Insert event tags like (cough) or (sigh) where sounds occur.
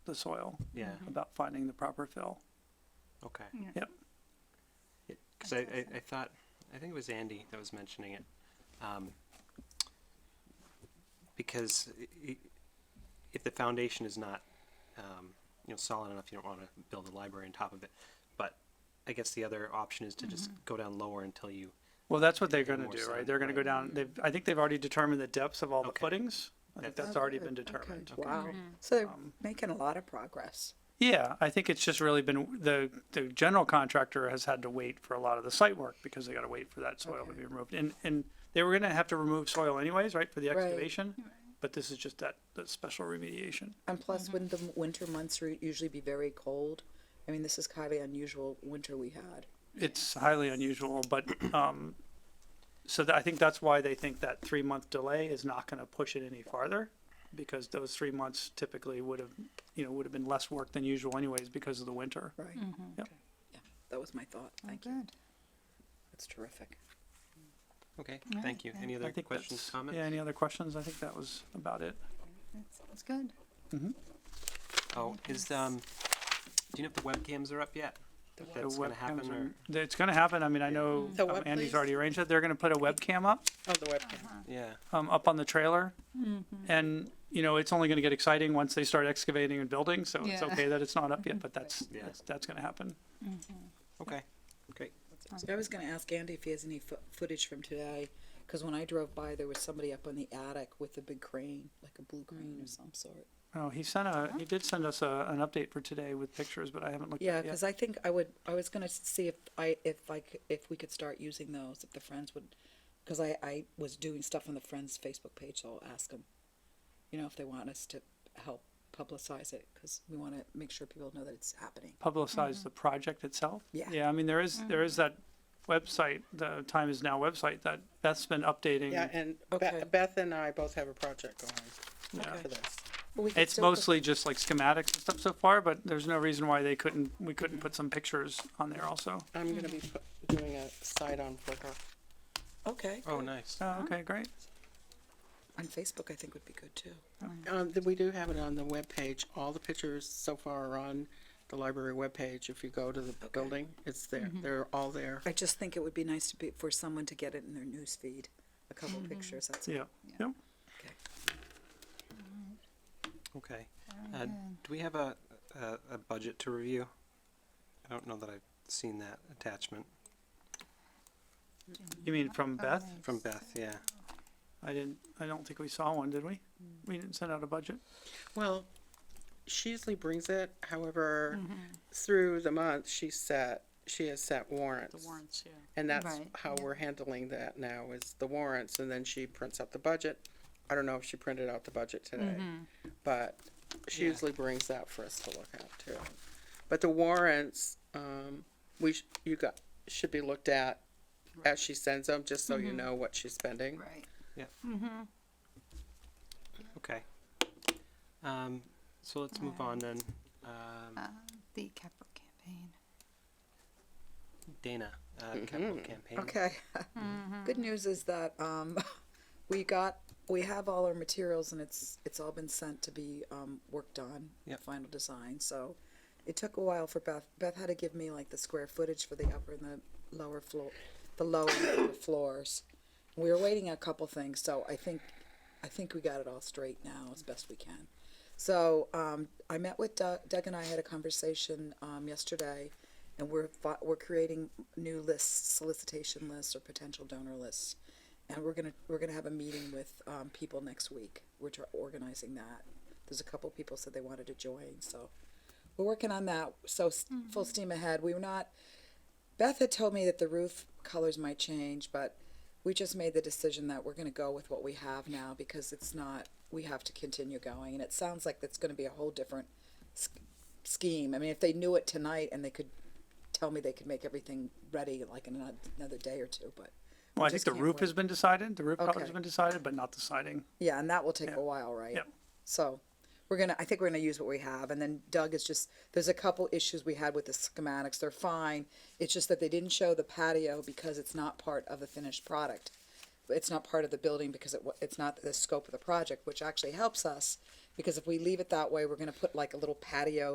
the soil, Yeah, about finding the proper fill. okay. Yeah. Yep. Because I, I, I thought, I think it was Andy that was mentioning it. Um, because i- i- if the foundation is not, um, you know, solid enough, you don't want to build a library on top of it. But I guess the other option is to Mm-hmm. just go down lower until you, Well, that's what they're Yeah, gonna more do, right? sun, They're gonna go right. down, they've, I think they've already determined the depths of all the Okay. footings. I think That's- that's already Okay, been determined. Wow, so they're Um, making a lot of progress. Yeah, I think it's just really been, the, the general contractor has had to wait for a lot of the site work because they gotta wait for that soil to Okay. be removed. And, and they were gonna have to remove soil anyways, right, for the Right. excavation? But this is just that, that special remediation. And plus, Mm-hmm. wouldn't the m- winter months re- usually be very cold? I mean, this is kind of unusual winter we had. It's highly unusual, but, (clears throat) um, so that, I think that's why they think that three-month delay is not gonna push it any farther. Because those three months typically would have, you know, would have been less work than usual anyways because of the winter. Right. Yep. Yeah, that was my thought. Thank you. Oh, Good. That's terrific. okay, Right, thank you. yeah. Any I other think questions, that's- comments? Yeah, any other questions? I think that was about it. That sounds good. Oh, is, um, do you know if the webcams are up yet? If The that's gonna webcams happen are- or, th- It's gonna happen. I mean, I know The um, what, Andy's please? already arranged it. They're gonna put a webcam up, Oh, the webcam. yeah, um, up on the trailer. Mm-hmm. And, you know, it's only gonna get exciting once they start excavating and building, so it's Yeah. okay that it's not up yet, but that's, Yeah. that's, that's gonna happen. okay, great. So I was going to ask Andy if he has any fo- footage from today, because when I drove by, there was somebody up on the attic with a big crane, like a blue crane Mm. of some sort. Oh, he sent a, he did send us a, an update for today with pictures, but I haven't looked Yeah, at it yet. because I think I would. I was gonna see if I if like if we could start using those if the friends would, because I I was doing stuff on the friends Facebook page, so I'll ask them, you know, if they want us to help publicize it because we want to make sure people know that it's happening. Publicize the project itself. Mm-hmm. Yeah. Mm-hmm. Yeah, I mean, there is, there is that website, the Time Is Now website that Beth's been updating. Yeah, and Be- Okay. Beth and I both have a project going Yeah. for this. But we could It's still put- mostly just like schematics and stuff so far, but there's no reason why they couldn't, we couldn't Mm-hmm. put some pictures on there also. I'm gonna be pu- doing a site on Flickr. okay Oh, nice. Oh, okay, great. on Facebook. I think would be good too. Um, th- we do have it on the webpage. All the pictures so far are on the library webpage. If you go to the building, it's there. They're all there. I just think it would be nice to be for someone to get it in their news feed, a couple pictures. That's Yeah, yeah. okay. Okay. Uh, do we have a, a, a budget to review? I don't know that I've seen that attachment You mean from Oh, Beth? from Beth, yeah. I didn't, I don't think we saw one, did we? Mm. We didn't send out a budget? Well, she usually brings it. However, through the month, she set she has set warrants. The warrants, yeah. And that's Right, how we're handling that now is the warrants, and then she prints out the budget. I don't know if she printed out the budget today, but she Yeah. usually brings that for us to look at too. But the warrants, um, we sh- you got should be looked at as she sends them, just so you know what she's spending. Right. Okay. Um, so let's move on then. Um, Uh, the capital campaign. Dana, uh, capital campaign. Okay. Good news is that um, (laughs) we got we have all our materials and it's it's all been sent to be um, worked on Yep. final design. So it took a while for Beth. Beth had to give me like the square footage for the upper and the lower floor, the lower and upper floors. We were waiting on a couple things, so I think I think we got it all straight now as best we can. So um, I met with Doug, Doug and I had a conversation um, yesterday, and we're fi- we're creating new lists, solicitation lists or potential donor lists, and we're gonna we're gonna have a meeting with um, people next week, which are organizing that. There's a couple people said they wanted to join, so we're working on that. So s full steam ahead. We were not. Beth had told me that the roof colors might change, but we just made the decision that we're going to go with what we have now because it's not, we have to continue going. And it sounds like that's going to be a whole different s- scheme. I mean, if they knew it tonight and they could tell me they could make everything ready like in ano- another day or two, but. Well, I think just the can't roof wait. has been decided, the roof color's Okay. been decided, but not the siding. Yeah, and that will take Yeah. a while, right? Yep. So we're gonna, I think we're gonna use what we have, and then Doug is just, there's a couple issues we had with the schematics, they're fine. It's just that they didn't show the patio because it's not part of the finished product. It's not part of the building because it, wa- it's not the scope of the project, which actually helps us Because if we leave it that way, we're gonna put like a little patio